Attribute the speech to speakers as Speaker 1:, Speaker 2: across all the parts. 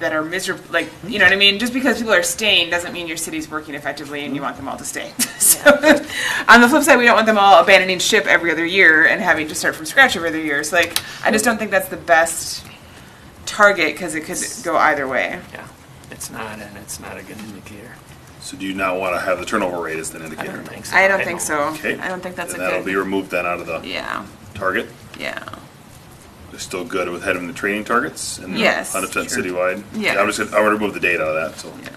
Speaker 1: that are miserable, like, you know what I mean? Just because people are staying doesn't mean your city's working effectively and you want them all to stay. So, on the flip side, we don't want them all abandoning ship every other year and having to start from scratch every other year. So like, I just don't think that's the best target because it could go either way.
Speaker 2: Yeah, it's not, and it's not a good indicator.
Speaker 3: So do you not want to have the turnover rate as an
Speaker 2: I
Speaker 3: indicator?
Speaker 2: don't think so.
Speaker 1: I don't think so.
Speaker 3: Okay.
Speaker 1: I don't think that's a
Speaker 3: Then that'll be
Speaker 1: good,
Speaker 3: removed then out of the
Speaker 1: yeah,
Speaker 3: target.
Speaker 1: yeah.
Speaker 3: They're still good with heading the training targets and
Speaker 1: Yes.
Speaker 3: hundred percent citywide.
Speaker 1: Yeah.
Speaker 3: I'm just gonna, I'm gonna remove the data out of that, so.
Speaker 1: Yeah.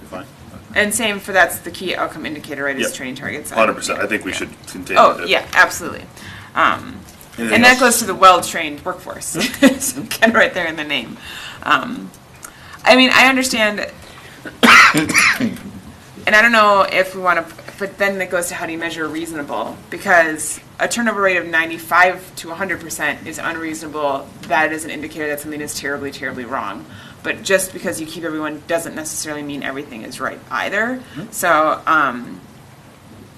Speaker 3: You're fine.
Speaker 1: And same for, that's the key outcome indicator, right, is
Speaker 3: Yep.
Speaker 1: training targets.
Speaker 3: Hundred percent. I think we
Speaker 1: Yeah.
Speaker 3: should continue.
Speaker 1: Oh,
Speaker 3: to-
Speaker 1: yeah, absolutely. Um,
Speaker 3: Anything
Speaker 1: and that
Speaker 3: else?
Speaker 1: goes to the well-trained workforce, so kind of right there in the name. Um, I mean, I understand, and I don't know if we want to, but then it goes to how do you measure reasonable? Because a turnover rate of ninety-five to hundred percent is unreasonable. That is an indicator that something is terribly, terribly wrong. But just because you keep everyone doesn't necessarily mean everything is right either. So, um,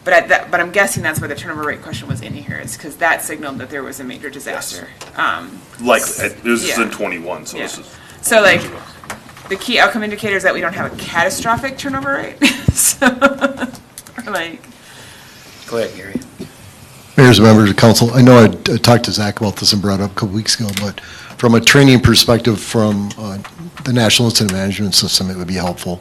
Speaker 1: but I, that, but I'm guessing that's why the turnover rate question was in here is because that signaled that there was a major disaster. Um,
Speaker 3: Likely. I- This is in
Speaker 1: Yeah.
Speaker 3: twenty-one, so
Speaker 1: Yeah.
Speaker 3: this is.
Speaker 1: So like, the key outcome indicator is that we don't have a catastrophic turnover rate. so, or like,
Speaker 4: Go ahead, Gary.
Speaker 5: Mayor's members of council, I know I I talked to Zach about this and brought it up a couple weeks ago, but from a training perspective from uh, the National Incident Management System, it would be helpful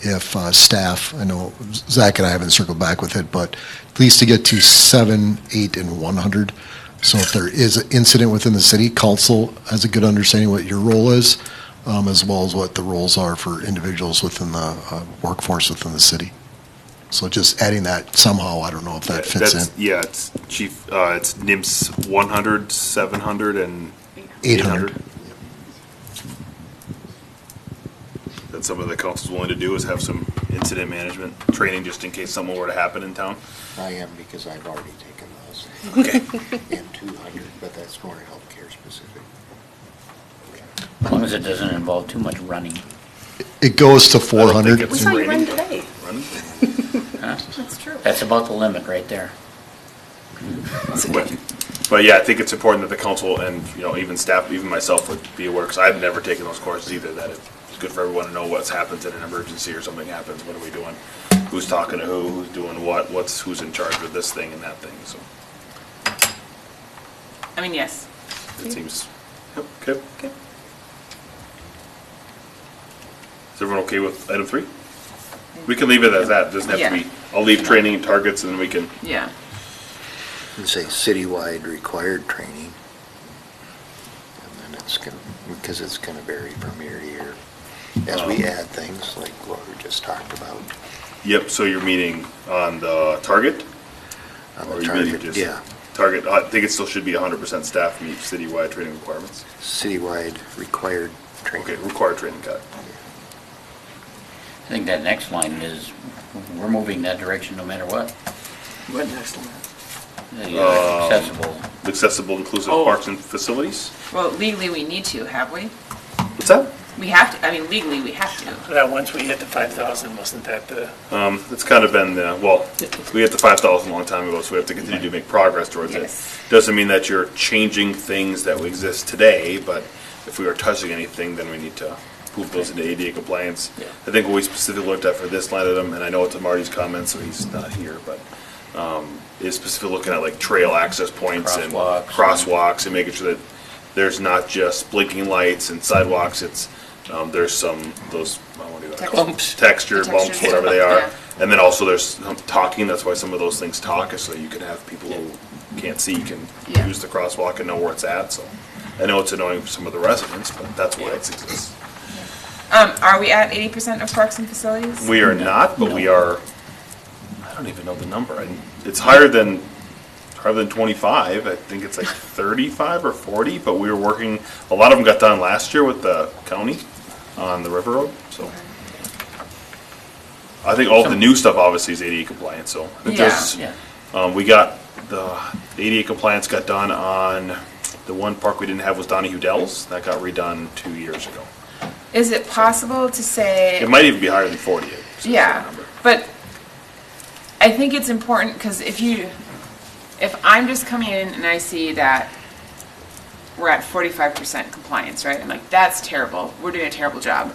Speaker 5: if uh, staff, I know Zach and I haven't circled back with it, but at least to get to seven, eight, and 100. So if there is an incident within the city, council has a good understanding what your role is, um, as well as what the roles are for individuals within the uh, workforce within the city. So just adding that somehow, I don't know if that fits in.
Speaker 3: That's- Yeah, it's chief, uh, it's NIMS one hundred, seven hundred and.
Speaker 5: 800.
Speaker 3: That's something the council's willing to do is have some incident management training just in case something were to happen in town.
Speaker 4: I am because I've already taken those. And 200, but that's more healthcare specific.
Speaker 6: As long as it doesn't involve too much running.
Speaker 5: It goes to
Speaker 3: I don't think
Speaker 5: 400.
Speaker 3: it's
Speaker 7: We saw you
Speaker 3: raining.
Speaker 7: run today.
Speaker 3: Run?
Speaker 7: That's true.
Speaker 6: That's about the limit right there.
Speaker 3: But- But yeah, I think it's important that the council and, you know, even staff, even myself would be aware, because I've never taken those courses either, that it's good for everyone to know what's happens in an emergency or something happens, what are we doing? Who's talking to who, who's doing what, what's, who's in charge of this thing and that thing, so
Speaker 1: I mean, yes.
Speaker 3: it seems, yep, okay. Is everyone okay with item three? We can leave it as that, doesn't have to be,
Speaker 1: Yeah.
Speaker 3: I'll leave training and targets and then we can,
Speaker 1: Yeah.
Speaker 4: And say citywide required training. And then it's going, to because it's going to vary from year to year. As we
Speaker 3: Um,
Speaker 4: add things like what we just talked about.
Speaker 3: yep, so you're meeting on the target?
Speaker 4: on
Speaker 3: Or
Speaker 4: the
Speaker 3: you mean
Speaker 4: target.
Speaker 3: just-
Speaker 4: Yeah,
Speaker 3: Target, I think it still should be hundred percent staff meet citywide training requirements.
Speaker 4: citywide required
Speaker 3: Okay,
Speaker 4: training.
Speaker 3: required training, got it.
Speaker 6: I think that next line is, we're moving that direction no matter what.
Speaker 2: What next line?
Speaker 6: The uh, accessible,
Speaker 3: Accessible inclusive
Speaker 2: Oh.
Speaker 3: parks and facilities?
Speaker 1: Well, legally we need to, have we?
Speaker 3: What's that?
Speaker 1: We have to. I mean, legally we have to.
Speaker 2: That once we hit the five thousand, wasn't that the,
Speaker 3: Um, it's kind of been the, well, we hit the five thousand a long time ago, so we have to continue to make progress towards it.
Speaker 1: Yes.
Speaker 3: Doesn't mean that you're changing things that exist today, but if we are touching anything, then we need to move those into ADA compliance.
Speaker 2: Yeah.
Speaker 3: I think what we specifically looked at for this line item, and I know it's in Marty's comments, so he's not here, but, um, is specifically looking at like trail access points and
Speaker 6: Crosswalks.
Speaker 3: crosswalks and making sure that there's not just blinking lights and sidewalks, it's, um, there's some, those, I don't know what do you call them?
Speaker 2: Bumps.
Speaker 3: Texture bumps,
Speaker 1: Textures.
Speaker 3: whatever they are.
Speaker 1: Yeah.
Speaker 3: And then also there's some talking, that's why some of those things talk, is so you can have people who can't see, can
Speaker 1: Yeah.
Speaker 3: use the crosswalk and know where it's at, so. I know it's annoying for some of the residents, but that's why it exists.
Speaker 1: Um, are we at eighty percent of parks and facilities?
Speaker 3: We are not, but we are, I don't even know the number, I- it's higher than, higher than twenty-five, I think it's like thirty-five or forty, but we were working, a lot of them got done last year with the county on the river road, so. I think all the new stuff obviously is ADA compliant, so. I think there's-
Speaker 6: yeah.
Speaker 3: Um, we got, the ADA compliance got done on, the one park we didn't have was Donahue Dells, that got redone two years ago.
Speaker 1: Is it possible to say?
Speaker 3: It might even be higher than forty. it's just that
Speaker 1: Yeah,
Speaker 3: number.
Speaker 1: but I think it's important, because if you, if I'm just coming in and I see that we're at forty-five percent compliance, right? I'm like, that's terrible. We're doing a terrible job.